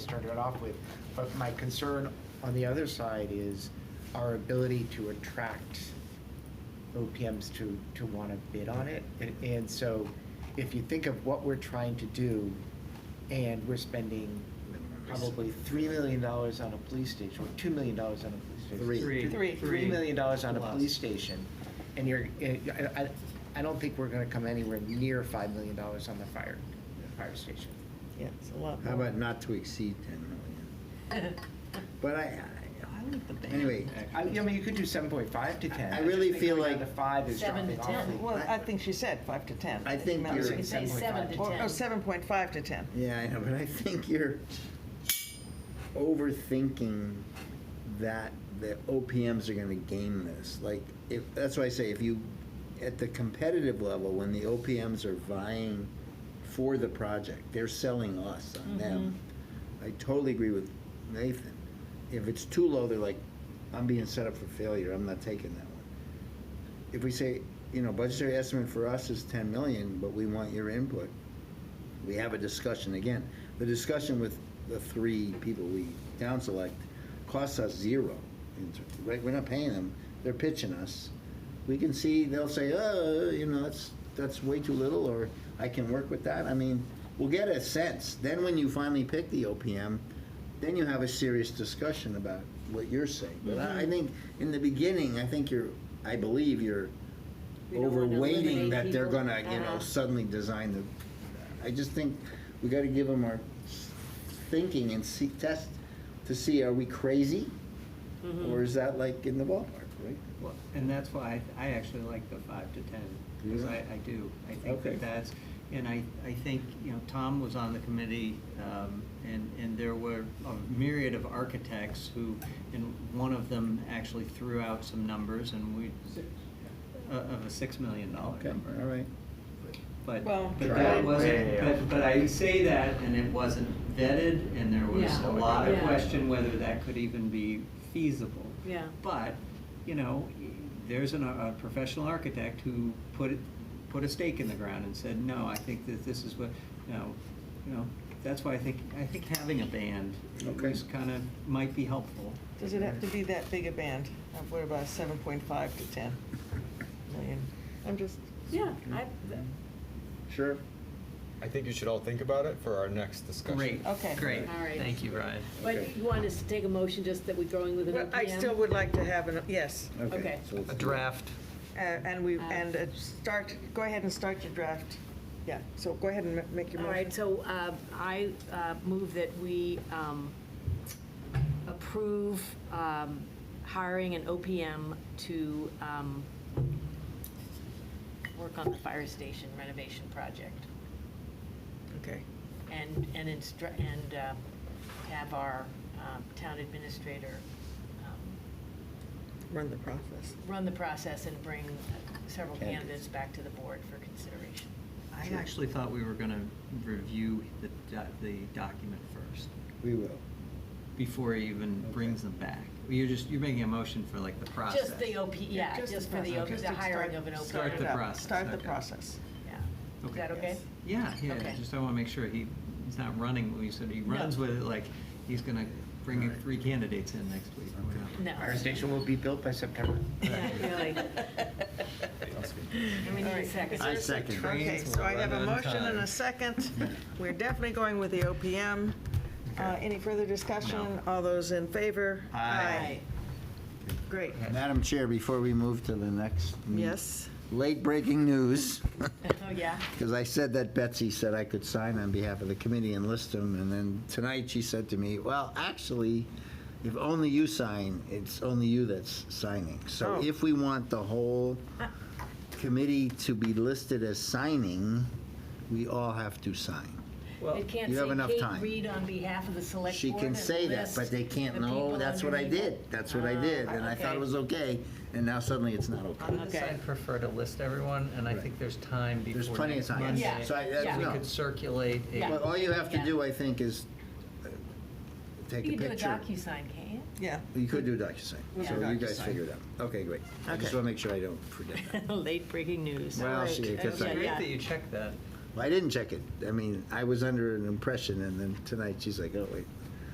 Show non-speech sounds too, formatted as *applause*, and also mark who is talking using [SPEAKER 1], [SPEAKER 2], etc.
[SPEAKER 1] started it off with. But my concern on the other side is our ability to attract OPMs to, to want to bid on it. And, and so if you think of what we're trying to do and we're spending probably $3 million on a police station or $2 million on a police station.
[SPEAKER 2] Three.
[SPEAKER 3] Three.
[SPEAKER 1] Three-
[SPEAKER 3] Three.
[SPEAKER 1] $3 million on a
[SPEAKER 3] Plus.
[SPEAKER 1] police station. And you're, eh, I, I- I don't think we're going to come anywhere near $5 million on the fire, fire station.
[SPEAKER 3] Yeah, it's a lot
[SPEAKER 2] How
[SPEAKER 3] more.
[SPEAKER 2] about not to exceed 10 million?
[SPEAKER 3] *laughs*
[SPEAKER 2] But I,
[SPEAKER 3] I like the band.
[SPEAKER 2] anyway,
[SPEAKER 1] I, I mean, you could do 7.5 to 10.
[SPEAKER 2] I
[SPEAKER 1] just
[SPEAKER 2] really
[SPEAKER 1] think
[SPEAKER 2] feel
[SPEAKER 1] going
[SPEAKER 2] like
[SPEAKER 1] down to five is
[SPEAKER 4] Seven
[SPEAKER 1] dropping
[SPEAKER 4] to
[SPEAKER 1] off.
[SPEAKER 4] 10.
[SPEAKER 3] Well, I think she said five to 10.
[SPEAKER 2] I think
[SPEAKER 3] Not
[SPEAKER 2] you're-
[SPEAKER 3] six.
[SPEAKER 4] You say
[SPEAKER 1] 7.5.
[SPEAKER 4] seven to
[SPEAKER 3] Or,
[SPEAKER 4] ten.
[SPEAKER 3] oh, 7.5 to 10.
[SPEAKER 2] yeah, I know, but I think you're overthinking that the OPMs are gonna game this. Like, if, that's why I say, if you, at the competitive level, when the OPMs are vying for the project, they're selling us on them. I totally agree with Nathan. If it's too low, they're like, I'm being set up for failure, I'm not taking that one. if we say, you know, budgetary estimate for us is ten million, but we want your input, we have a discussion again. The discussion with the three people we down select costs us zero, in ter- right, we're not paying them, they're pitching us. We can see, they'll say, oh, you know, that's, that's way too little, or I can work with that, I mean, we'll get a sense. Then when you finally pick the OPM, then you have a serious discussion about what you're saying. But I I
[SPEAKER 4] Mm-hmm.
[SPEAKER 2] think, in the beginning, I think you're, I believe you're
[SPEAKER 4] We don't wanna
[SPEAKER 2] overweighting
[SPEAKER 4] eliminate
[SPEAKER 2] that they're
[SPEAKER 4] people.
[SPEAKER 2] gonna, you know,
[SPEAKER 4] Uh-huh.
[SPEAKER 2] suddenly design the, I just think we gotta give them our thinking and see, test to see, are we crazy?
[SPEAKER 4] Mm-hmm.
[SPEAKER 2] Or is that like in the ballpark, right?
[SPEAKER 5] Well, and that's why I, I actually like the five to ten, because I, I do. I think
[SPEAKER 2] Okay.
[SPEAKER 5] that that's, and I, I think, you know, Tom was on the committee, um, and, and there were a myriad of architects who, and one of them actually threw out some numbers, and we, uh, of a six million dollar
[SPEAKER 2] Okay,
[SPEAKER 5] number.
[SPEAKER 2] all right.
[SPEAKER 5] But,
[SPEAKER 3] Well-
[SPEAKER 5] but
[SPEAKER 2] Right.
[SPEAKER 5] that wasn't, but, but I say that, and it wasn't vetted, and there was
[SPEAKER 4] Yeah.
[SPEAKER 5] a lot of
[SPEAKER 4] Yeah.
[SPEAKER 5] question whether that could even be feasible.
[SPEAKER 4] Yeah.
[SPEAKER 5] But, you know, there's an, a professional architect who put it, put a stake in the ground and said, no, I think that this is what, you know, you know, that's why I think, I think having a band
[SPEAKER 2] Okay.
[SPEAKER 5] is kind of, might be helpful.
[SPEAKER 3] Does it have to be that big a band? Uh, What about 7.5 to 10 million? I'm just,
[SPEAKER 4] Yeah, I,
[SPEAKER 3] Mm-hmm.
[SPEAKER 4] th-
[SPEAKER 2] Sure.
[SPEAKER 6] I think you should all think about it for our next discussion.
[SPEAKER 5] Great,
[SPEAKER 3] Okay.
[SPEAKER 5] great.
[SPEAKER 4] All right.
[SPEAKER 5] Thank you, Ryan.
[SPEAKER 4] but
[SPEAKER 2] Okay.
[SPEAKER 4] you want us to take a motion just that we're going with an OPM?
[SPEAKER 3] I still would like to have an, yes.
[SPEAKER 4] Okay.
[SPEAKER 2] so it's-
[SPEAKER 5] A draft.
[SPEAKER 3] Uh, And we, and uh, start, go ahead and start your draft. Yeah, so go ahead and ma- make your
[SPEAKER 4] All
[SPEAKER 3] motion.
[SPEAKER 4] right, so uh, I uh, move that we um, approve um, hiring an OPM to um, work on the fire station renovation project
[SPEAKER 3] Okay.
[SPEAKER 4] and, and instru- and uh, have our um, town administrator um,
[SPEAKER 3] Run the process.
[SPEAKER 4] run the process and bring several
[SPEAKER 2] Candidates.
[SPEAKER 4] candidates back to the board for consideration.
[SPEAKER 5] I actually thought we were gonna review the, do- the document first,
[SPEAKER 2] We will.
[SPEAKER 5] before he even brings them back. You're just, you're making a motion for like the process.
[SPEAKER 4] Just the OP, yeah,
[SPEAKER 3] the
[SPEAKER 4] just for the,
[SPEAKER 3] process.
[SPEAKER 4] O-
[SPEAKER 3] Just
[SPEAKER 4] the
[SPEAKER 3] to
[SPEAKER 4] hiring
[SPEAKER 3] start-
[SPEAKER 4] of an OPM.
[SPEAKER 5] Start the
[SPEAKER 3] it up.
[SPEAKER 5] process,
[SPEAKER 3] Start the
[SPEAKER 5] okay.
[SPEAKER 3] process.
[SPEAKER 4] Yeah. Is
[SPEAKER 5] Okay.
[SPEAKER 4] that okay?
[SPEAKER 5] Yeah, yeah,
[SPEAKER 4] Okay.
[SPEAKER 5] just I wanna make sure he, he's not running, when you said he
[SPEAKER 4] No.
[SPEAKER 5] runs with it, like, he's gonna bring in three candidates in next week. or whatever.
[SPEAKER 4] No.
[SPEAKER 1] Fire station
[SPEAKER 4] *laughs*
[SPEAKER 1] will be built by September.
[SPEAKER 4] Not really. And we need
[SPEAKER 3] All
[SPEAKER 4] a
[SPEAKER 3] right.
[SPEAKER 4] second.
[SPEAKER 2] I second. that.
[SPEAKER 3] Okay, so I have a
[SPEAKER 5] Trains will run on
[SPEAKER 3] motion and
[SPEAKER 5] time.
[SPEAKER 3] a second. We're definitely going with the OPM. Uh, Any further discussion?
[SPEAKER 5] No.
[SPEAKER 3] All those in favor?
[SPEAKER 5] Aye.
[SPEAKER 3] Great,
[SPEAKER 2] Madam Chair, before we move to the next.
[SPEAKER 5] Mm.
[SPEAKER 3] yes.
[SPEAKER 2] Late breaking news.
[SPEAKER 4] Oh, yeah?
[SPEAKER 2] Because I said that Betsy said I could sign on behalf of the committee and list them, and then tonight she said to me, well, actually, if only you sign, it's only you that's signing. So
[SPEAKER 3] Oh.
[SPEAKER 2] if we want the whole committee to be listed as signing, we all have to sign.
[SPEAKER 4] It can't
[SPEAKER 2] you have enough
[SPEAKER 4] say Kate
[SPEAKER 2] time.
[SPEAKER 4] Reed on behalf of the select board.
[SPEAKER 2] She can
[SPEAKER 4] and
[SPEAKER 2] say that, but
[SPEAKER 4] list
[SPEAKER 2] they can't
[SPEAKER 4] the
[SPEAKER 2] know,
[SPEAKER 4] people
[SPEAKER 2] that's what I
[SPEAKER 4] underneath
[SPEAKER 2] did,
[SPEAKER 4] it.
[SPEAKER 2] that's what I
[SPEAKER 4] Ah,
[SPEAKER 2] did, and I thought
[SPEAKER 4] okay.
[SPEAKER 2] it was okay, and now suddenly it's not okay.
[SPEAKER 5] On this,
[SPEAKER 4] Okay.
[SPEAKER 5] I prefer to list everyone, and I think there's time before
[SPEAKER 2] There's plenty of
[SPEAKER 5] next
[SPEAKER 2] time.
[SPEAKER 5] Monday.
[SPEAKER 4] Yeah. So I- that's-
[SPEAKER 5] We
[SPEAKER 4] no.
[SPEAKER 5] could circulate a.
[SPEAKER 4] Yeah.
[SPEAKER 2] But all you have to
[SPEAKER 4] Yeah.
[SPEAKER 2] do, I think, is uh, take
[SPEAKER 4] You
[SPEAKER 2] a
[SPEAKER 4] can do a
[SPEAKER 2] picture.
[SPEAKER 4] DocuSign, can't you?
[SPEAKER 3] Yeah.
[SPEAKER 2] You could do DocuSign,
[SPEAKER 3] Yeah.
[SPEAKER 2] so you guys
[SPEAKER 3] DocuSign.
[SPEAKER 2] figure it out. Okay, great. I just
[SPEAKER 3] Okay.
[SPEAKER 2] want to make sure I don't forget *laughs* that.
[SPEAKER 4] Late breaking news.
[SPEAKER 2] Well,
[SPEAKER 3] Alright,
[SPEAKER 2] see, 'cause
[SPEAKER 5] It's
[SPEAKER 2] I,
[SPEAKER 4] okay.
[SPEAKER 5] great
[SPEAKER 4] Yeah.
[SPEAKER 5] that you checked that.
[SPEAKER 2] well, I didn't check it. I mean, I was under an impression, and then tonight she's like, oh, wait,